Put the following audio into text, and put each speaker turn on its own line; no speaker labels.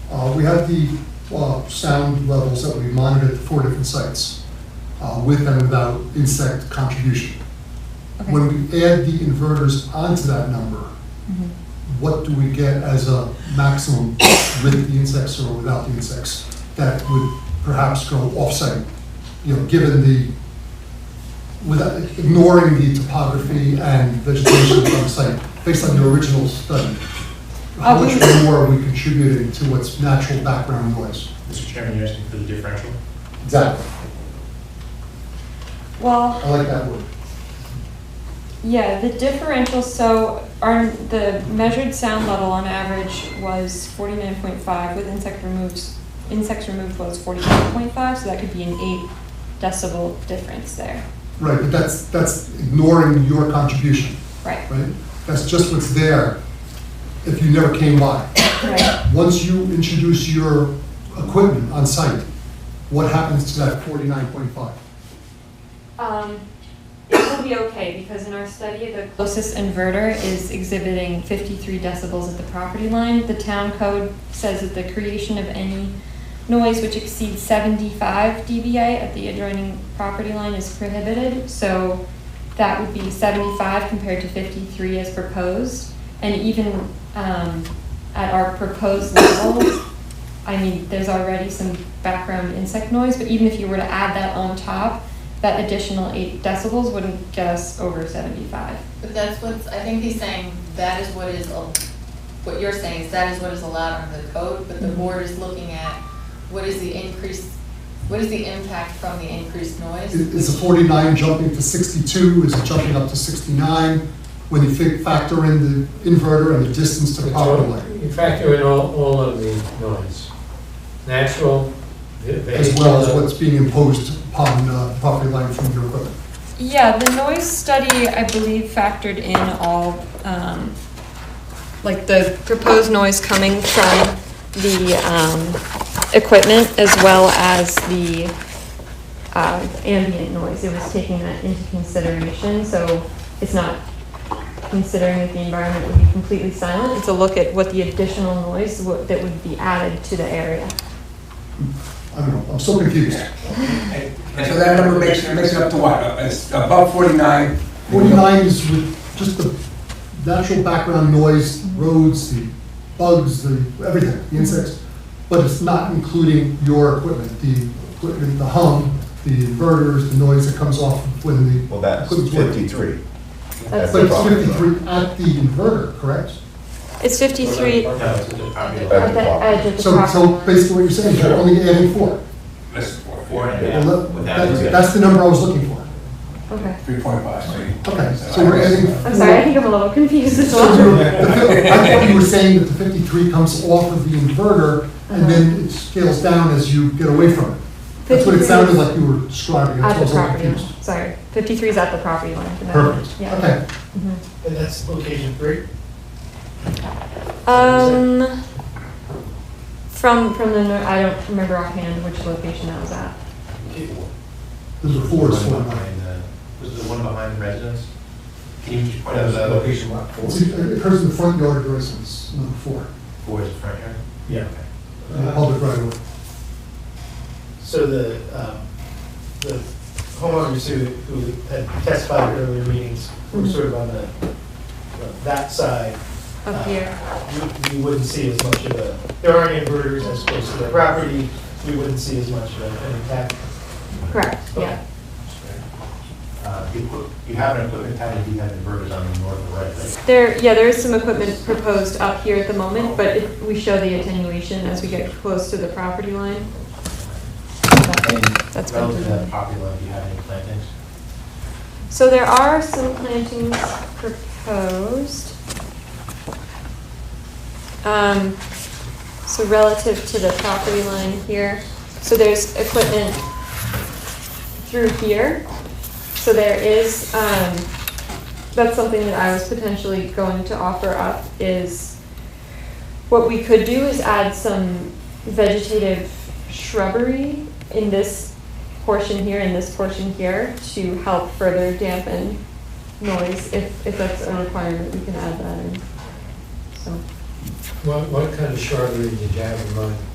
Uh, We have the uh, sound levels that we monitored at four different sites uh, with and without insect contribution.
Okay.
When we add the inverters onto that number,
Mhm.
what do we get as a maximum with the insects or without the insects? That would perhaps go offsite, you know, given the, without, ignoring the topography and vegetation on site, based on the original study. How
Uh, we-
much more are we contributing to what's natural background noise?
Mr. Chairman, you're asking for the differential?
Exactly.
Well,
I like that word.
yeah, the differential, so our, the measured sound level on average was forty-nine point five with insect removes, insects removed was forty-nine point five, so that could be an eight decibel difference there.
Right, but that's, that's ignoring your contribution,
Right,
right? That's just what's there if you never came by.
right.
Once you introduce your equipment on site, what happens to that 49.5?
Um, it will be okay because in our study, the closest inverter is exhibiting fifty-three decibels at the property line. The town code says that the creation of any noise which exceeds seventy-five dBA at the adjoining property line is prohibited. So that would be seventy-five compared to fifty-three as proposed. And even, um, at our proposed level, I mean, there's already some background insect noise, but even if you were to add that on top, that additional eight decibels wouldn't get us over seventy-five.
But that's what's, I think he's saying, that is what is, al- what you're saying is that is what is allowed under the code, but the
Mhm.
board is looking at what is the increase, what is the impact from the increased noise?
Is is the 49 jumping to 62, is it jumping up to 69? When you fi- factor in the inverter and the distance to the power line,
You factor in all, all of the noise, natural, ve-
as well as
vegetal,
what's being imposed upon uh, property line from your equipment.
Yeah, the noise study, I believe, factored in all, um, like the proposed noise coming from the, um, equipment as well as the, uh, ambient noise. It was taking that into consideration, so it's not considering that the environment would be completely silent. It's a look at what the additional noise wo- that would be added to the area.
I don't know, I'm so confused.
So that number makes, makes it up to what? Uh, It's above 49?
49 is with just the natural background noise, roads, the bugs, the, everything, the insects, but it's not including your equipment, the equipment, the hum, the inverters, the noise that comes off when the,
Well, that's
Couldn't work.
53.
That's
That's
but
the
it's
problem.
53 at the inverter, correct?
It's fifty-three
No, it's a
At
at
the
the
property.
edge of the
So,
property
so
line.
basically what you're saying, is you're only adding four.
That's
Four and a
4.5.
half.
Well, that-
without
that-
the-
That's the number I was looking for.
Okay.
3.5.
Okay, so we're adding.
I'm sorry, I think I'm a little confused as
So
well.
you- I thought you were saying that the 53 comes off of the inverter and then it scales down as you get away from it. That's what it
53
sounded like you were describing.
At
I
the
was a little
property line,
confused.
sorry. 53 is at the property line. for that.
Perfect,
Yeah.
okay.
Mhm.
And that's location three?
Um, from, from the, nor- I don't remember offhand which location that was at.
There's a four, it's
One
four.
behind the- Was it the one behind the residence? Can you just point out the location?
Location lot four.
It's- It occurs in the front yard of your residence, number four,
Four is the front yard?
Yeah.
in the public right away.
So the, um, the homeowners who, who had testified at earlier meetings were sort of on the, uh, that side.
Up
uh,
here.
You, you wouldn't see as much of a, there aren't inverters as close to the property, you wouldn't see as much of an impact.
Correct, yeah.
Uh, You put- you have an equipment package, you have inverters on the north and right, right?
There, yeah, there is some equipment proposed up here at the moment, but it- we show the attenuation as we get close to the property line.
And
That's been
relative to
done.
that property line, do you have any plantings?
So there are some plantings proposed. Um, so relative to the property line here, so there's equipment through here. So there is, um, that's something that I was potentially going to offer up is what we could do is add some vegetative shrubbery in this portion here and this portion here to help further dampen noise. If, if that's a requirement, we can add that in, so.
what, what kind of shrubbery did you have in mind?